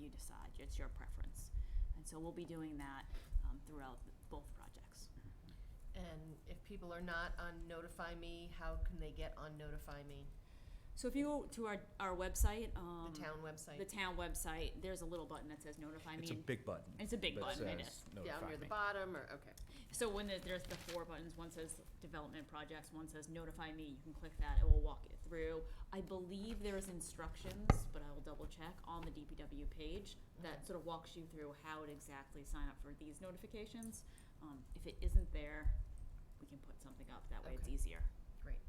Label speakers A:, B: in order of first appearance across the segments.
A: you decide. It's your preference. And so we'll be doing that um, throughout both projects.
B: And if people are not on Notify Me, how can they get on Notify Me?
A: So if you go to our, our website, um,
B: Mm-hmm. The town
A: the
B: website,
A: town website, there's a little button that says notify me.
C: It's a big button.
A: It's a big
C: that
A: button, it is.
C: says
B: down
C: notify
B: near the
C: me.
B: bottom, or, okay.
A: So when the, there's the four buttons, one says development projects, one says notify me, you can click that, it will walk you through. I believe there's instructions, but I will double check, on the DPW page that sort of walks you through how to exactly sign up for these notifications. Um, if it isn't there, we can put something up, that way it's
B: Okay.
A: easier.
B: Great.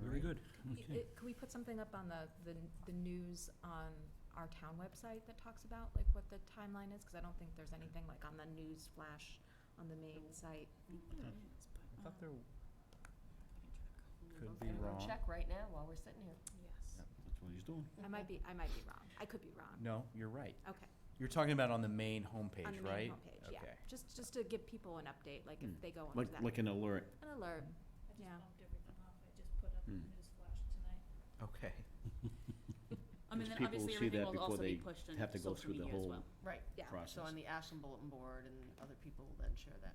C: Very good.
D: Y- it- Could we put something up on the, the, the news on our town website that talks about like what the timeline is? Because I don't think there's anything like on the news flash on the main site.
A: I think there is, but,
C: I thought
A: uh,
C: there,
A: I can check.
C: Could
B: We're
C: be
B: gonna go
C: wrong.
B: Check right now while we're sitting here.
A: Yes.
E: That's what he's doing.
B: Mm-hmm.
D: I might be, I might be wrong. I could be wrong.
C: no, you're right.
D: Okay.
C: You're talking about on the main homepage, right?
D: On the main homepage, yeah.
C: Okay.
D: Just, just to give people an update, like
E: Hmm.
D: if they go onto
E: Like,
D: that.
E: like an alert.
D: An alert.
F: I just
D: Yeah.
F: bumped everything off. I just put up the
E: Hmm.
F: news flash tonight.
C: Okay.
A: I mean,
E: Because people
A: then obviously
E: will see that
A: everything will
E: before
A: also be
E: they
A: pushed on
E: have to go
A: social
E: through the
A: media as
E: whole-
A: well.
B: Right.
D: Yeah.
E: Process.
B: So on the Ashland Bulletin Board, and other people will then share that.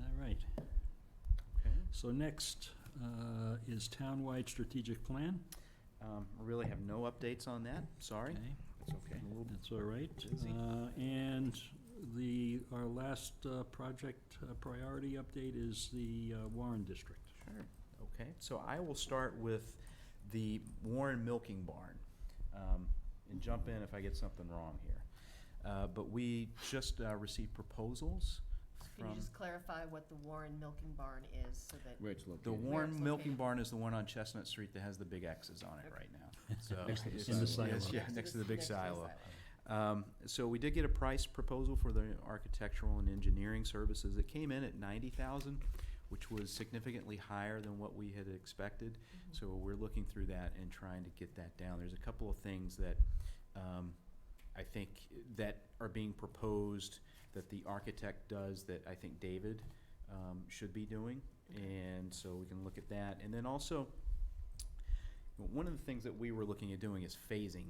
G: All right.
C: Okay.
G: So next uh, is townwide strategic plan.
C: Um, really have no updates on that, sorry.
G: Okay,
C: It's okay.
E: A little-
G: That's all right.
C: Busy.
G: Uh, And the, our last uh, project uh, priority update is the uh, Warren District.
C: Sure. Okay, so I will start with the Warren Milking Barn. Um, And jump in if I get something wrong here. Uh, But we just uh, received proposals
B: Can you
C: from,
B: just clarify what the Warren Milking Barn is, so that,
E: Where it's
C: the
E: located.
B: Where it's
C: Warren Milking
B: located.
C: Barn is the one on Chestnut Street that has the big X's on it right now. So
E: Next to the
C: it's-
G: In the
C: it's-
G: silo.
C: Yeah, next to the big
B: Next to the
C: silo.
B: silo.
C: Um, So we did get a price proposal for the architectural and engineering services. It came in at ninety thousand, which was significantly higher than what we had expected. So we're looking through that and trying to get that down. There's a couple of things that um, I think that are being proposed that the architect does that I think David um, should be doing. And so we can look at that. And then also, one of the things that we were looking at doing is phasing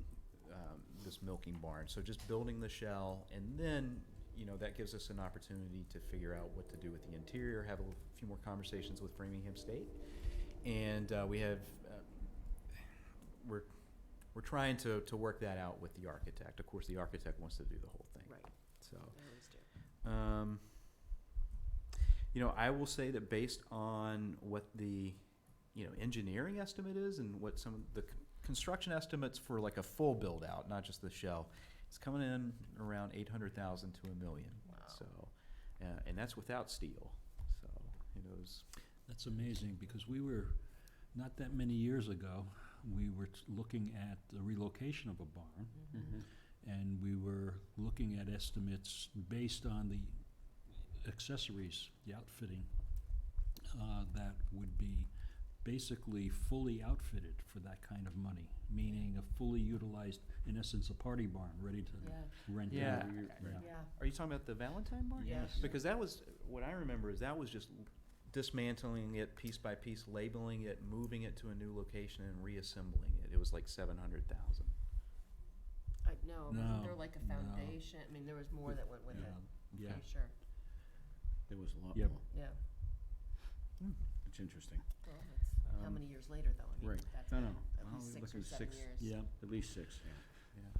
C: um, this milking barn. So just building the shell, and then you know that gives us an opportunity to figure out what to do with the interior. Have a little- few more conversations with Framingham State, and uh, we have uh, we're we're trying to to work that out with the architect. Of course, the architect wants to do the whole thing.
B: right,
C: So.
B: I always do.
C: Um, you know, I will say that based on what the, you know, engineering estimate is and what some of the c- construction estimates for like a full build out, not just the shell, it's coming in around eight hundred thousand to a million.
B: Wow.
C: So, uh, and that's without steel. So, you know, it's,
G: That's amazing, because we were, not that many years ago, we were t- looking at the relocation of a barn,
B: Mm-hmm.
G: and we were looking at estimates based on the accessories, the outfitting, uh, that would be basically fully outfitted for that kind of money, meaning a fully utilized, in essence, a party barn, ready to
B: Yeah.
G: rent out.
C: Yeah.
G: Yeah.
B: Yeah,
C: are you talking about the Valentine barn?
B: Yes.
C: Because that was, what I remember is that was just dismantling it piece by piece, labeling it, moving it to a new location and reassembling it. It was like seven hundred thousand.
B: I know, wasn't
G: No,
B: there like a
G: no.
B: foundation, I mean, there was more that went with it,
G: Yeah. Yeah.
B: pretty sure,
E: There was a lot
G: Yep.
E: more.
B: yeah.
E: It's interesting.
B: Well, that's, how
C: Um,
B: many years later, though, I mean,
E: right.
B: that's
E: No,
B: been
E: no.
B: at
E: Well,
B: least
E: we're
B: six or
E: looking
B: seven
E: six-
B: years.
G: Yeah,
E: At least six,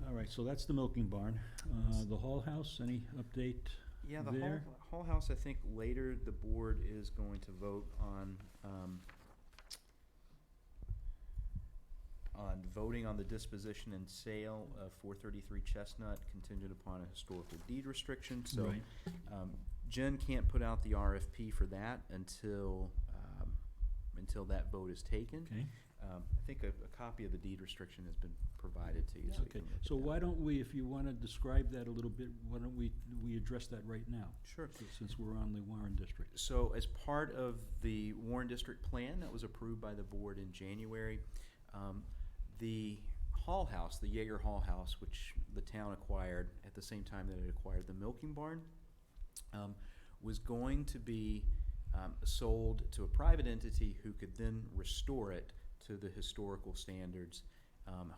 E: yeah.
G: all right, so that's the milking barn. Uh, the Hall House, any update?
C: Yeah, the
G: there.
C: whole, whole house, I think later the board is going to vote on, um, on voting on the disposition and sale of four thirty-three Chestnut contingent upon a historical deed restriction, so.
G: Right.
C: Um, Jen can't put out the RFP for that until, um, until that vote is taken.
G: Okay.
C: Um, I think a, a copy of the deed restriction has been provided to you, so you
G: Okay,
C: can look at
G: so
C: that.
G: why don't we, if you want to describe that a little bit, why don't we, we address that right now?
C: Sure.
G: si- Since we're on the Warren District.
C: So as part of the Warren District Plan that was approved by the board in January, um, the Hall House, the Jaeger Hall House, which the town acquired at the same time that it acquired the milking barn, um, was going to be um, sold to a private entity who could then restore it to the historical standards. Um,